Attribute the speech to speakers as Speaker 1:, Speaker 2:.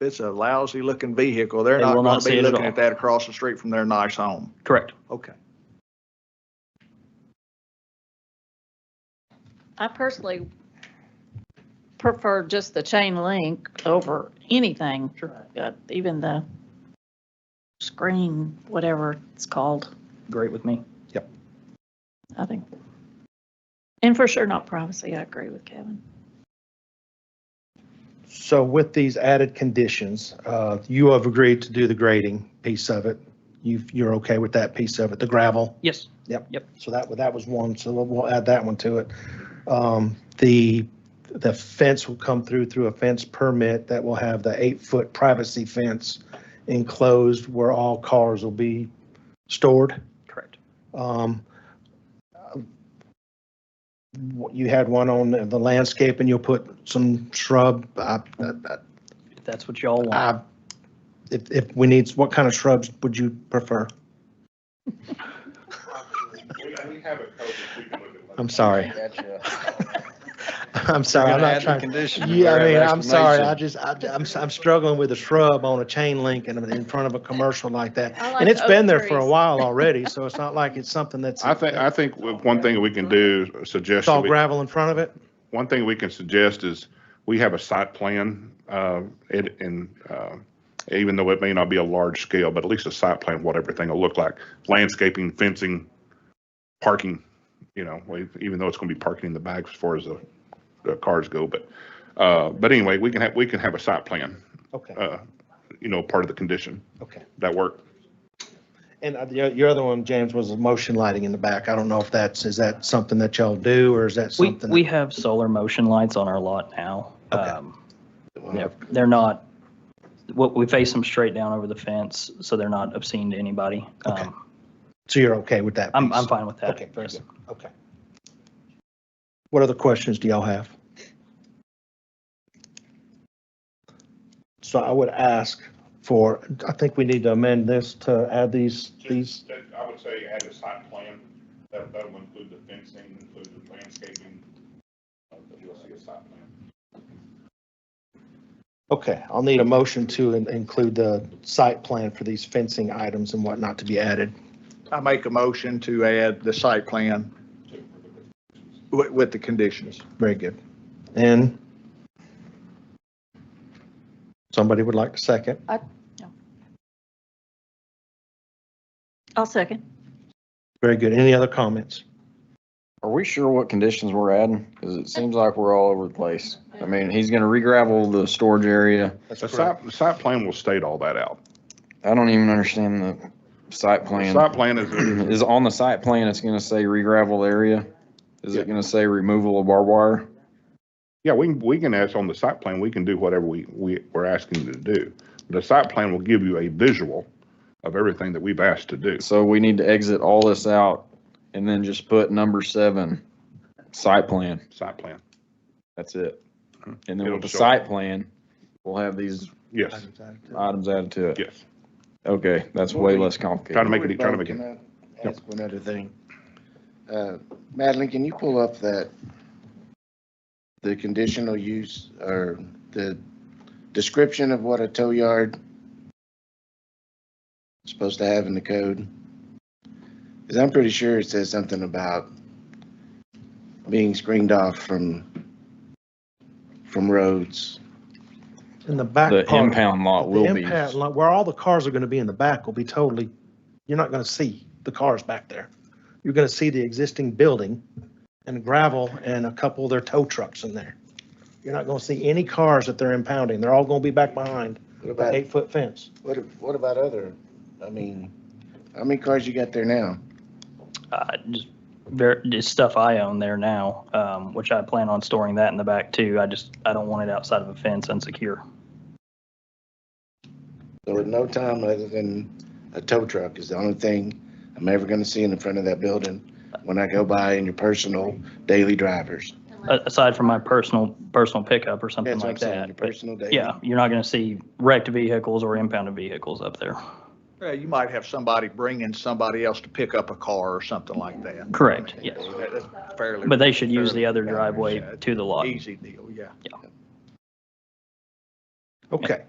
Speaker 1: it's a lousy looking vehicle, they're
Speaker 2: They
Speaker 1: not
Speaker 2: will not
Speaker 1: gonna
Speaker 2: see it
Speaker 1: be
Speaker 2: at
Speaker 1: looking
Speaker 2: all.
Speaker 1: at that across the street from their nice home.
Speaker 2: Correct.
Speaker 1: Okay.
Speaker 3: I personally prefer just the chain link over anything, uh, even the screen, whatever it's called,
Speaker 2: Great with me.
Speaker 3: I think. And for sure not privacy, I agree with Kevin.
Speaker 4: So with these added conditions, uh, you have agreed to do the grading piece of it. You've, you're okay with that piece of it, the gravel.
Speaker 2: Yes.
Speaker 4: So that, that was one, so we'll- we'll add that one to it. Um, The, the fence will come through, through a fence permit that will have the eight-foot privacy fence enclosed where all cars will be stored.
Speaker 2: Correct.
Speaker 4: Um, You had one on the landscape and you'll put some shrub, I- I-
Speaker 2: If that's what y'all want.
Speaker 4: I- Uh, If, if we need, what kind of shrubs would you prefer?
Speaker 5: We have a code that we can look at.
Speaker 4: I'm sorry. I'm sorry, I'm not trying.
Speaker 6: Condition.
Speaker 4: Yeah, I mean, I'm sorry, I just, I, I'm, I'm struggling with a shrub on a chain link and in front of a commercial like that.
Speaker 3: I like
Speaker 4: And it's
Speaker 3: oak
Speaker 4: been there for a
Speaker 3: trees.
Speaker 4: while already, so it's not like it's something that's.
Speaker 5: I think, I think with one thing we can do, uh,
Speaker 4: It's
Speaker 5: suggest,
Speaker 4: all
Speaker 5: that we-
Speaker 4: gravel in front of it.
Speaker 5: one thing we can suggest is we have a site plan, uh, it, and, uh, even though it may not be a large scale, but at least a site plan, what everything will look like, landscaping, fencing, parking, you know, we- even though it's going to be parking in the back as far as the, the cars go, but, uh, but anyway, we can have, we can have a site plan,
Speaker 4: Okay,
Speaker 5: uh, you know, part of the condition
Speaker 4: okay.
Speaker 5: that work.
Speaker 4: And uh, your, your other one, James, was the motion lighting in the back. I don't know if that's, is that something that y'all do or is that
Speaker 2: We,
Speaker 4: something?
Speaker 2: we have solar motion lights on our lot now.
Speaker 4: Okay.
Speaker 2: Um, They're, they're not, what, we face them straight down over the fence, so they're not obscene to anybody.
Speaker 4: Okay.
Speaker 2: Um,
Speaker 4: So you're okay with that?
Speaker 2: I'm,
Speaker 4: piece?
Speaker 2: I'm fine with that.
Speaker 4: Okay, very
Speaker 2: Yes.
Speaker 4: good. Okay. What other questions do y'all have? So I would ask for, I think we need to amend this to add these, these,
Speaker 5: Just, that- I would say add a site plan, that, that will include the fencing, include the landscaping, uh, but you'll see a site plan.
Speaker 4: okay, I'll need a motion to in- include the site plan for these fencing items and whatnot to be added.
Speaker 1: I make a motion to add the site plan with, with the conditions.
Speaker 4: Very good. And somebody would like to second?
Speaker 3: I'll second.
Speaker 4: Very good. Any other comments?
Speaker 6: Are we sure what conditions we're adding? Because it seems like we're all over the place. I mean, he's gonna re-gravel the storage area.
Speaker 5: The site, the site plan will state all that out.
Speaker 6: I don't even understand the site
Speaker 5: The
Speaker 6: plan.
Speaker 5: site plan is,
Speaker 6: Is on the site plan, it's gonna say re-gravel area? Is it gonna say removal of barbed wire?
Speaker 5: yeah, we, can- we can ask on the site plan, we can do whatever we, we, we're asking you to do. The site plan will give you a visual of everything that we've asked to do.
Speaker 6: So we need to exit all this out and then just put number seven, site plan.
Speaker 5: Site plan,
Speaker 6: That's it. And then
Speaker 5: It'll
Speaker 6: with the
Speaker 5: show.
Speaker 6: site plan, we'll have these
Speaker 5: yes,
Speaker 6: items added to it.
Speaker 5: yes.
Speaker 6: Okay, that's way less
Speaker 5: Trying to
Speaker 6: complicated.
Speaker 5: make it, trying to make it.
Speaker 7: Can I Ask one other thing. Uh, Madeline, can you pull up that, the conditional use or the description of what a tow yard is supposed to have in the code? Because I'm pretty sure it says something about being screened off from, from roads.
Speaker 4: In the back
Speaker 6: The
Speaker 4: part.
Speaker 6: impound lot uh, will
Speaker 4: The
Speaker 6: be.
Speaker 4: impact, like where all the cars are gonna be in the back will be totally, you're not gonna see the cars back there. You're gonna see the existing building and gravel and a couple of their tow trucks in there. You're not gonna see any cars that they're impounding. They're all gonna be back behind
Speaker 7: What
Speaker 4: the
Speaker 7: about,
Speaker 4: eight-foot fence.
Speaker 7: what, if- what about other, I mean, how many cars you got there now?
Speaker 2: Uh, Just ver- just stuff I own there now, um, which I plan on storing that in the back too. I just, I don't want it outside of a fence unsecure.
Speaker 7: So at no time other than a tow truck is the only thing I'm ever gonna see in the front of that building when I go by in your personal daily drivers.
Speaker 2: A- Aside from my personal, personal pickup or something
Speaker 7: That's what I'm
Speaker 2: like
Speaker 7: saying, your
Speaker 2: that. But
Speaker 7: personal daily.
Speaker 2: Yeah, you're not going to see wrecked vehicles or impounded vehicles up there.
Speaker 1: Yeah, you might have somebody bringing somebody else to pick up a car or something like that.
Speaker 2: Correct, yes.
Speaker 1: That- that's Fairly.
Speaker 2: But they should use the other
Speaker 1: fairly-
Speaker 2: driveway
Speaker 1: yeah,
Speaker 2: to the lot.
Speaker 1: Easy deal, yeah.
Speaker 4: Okay,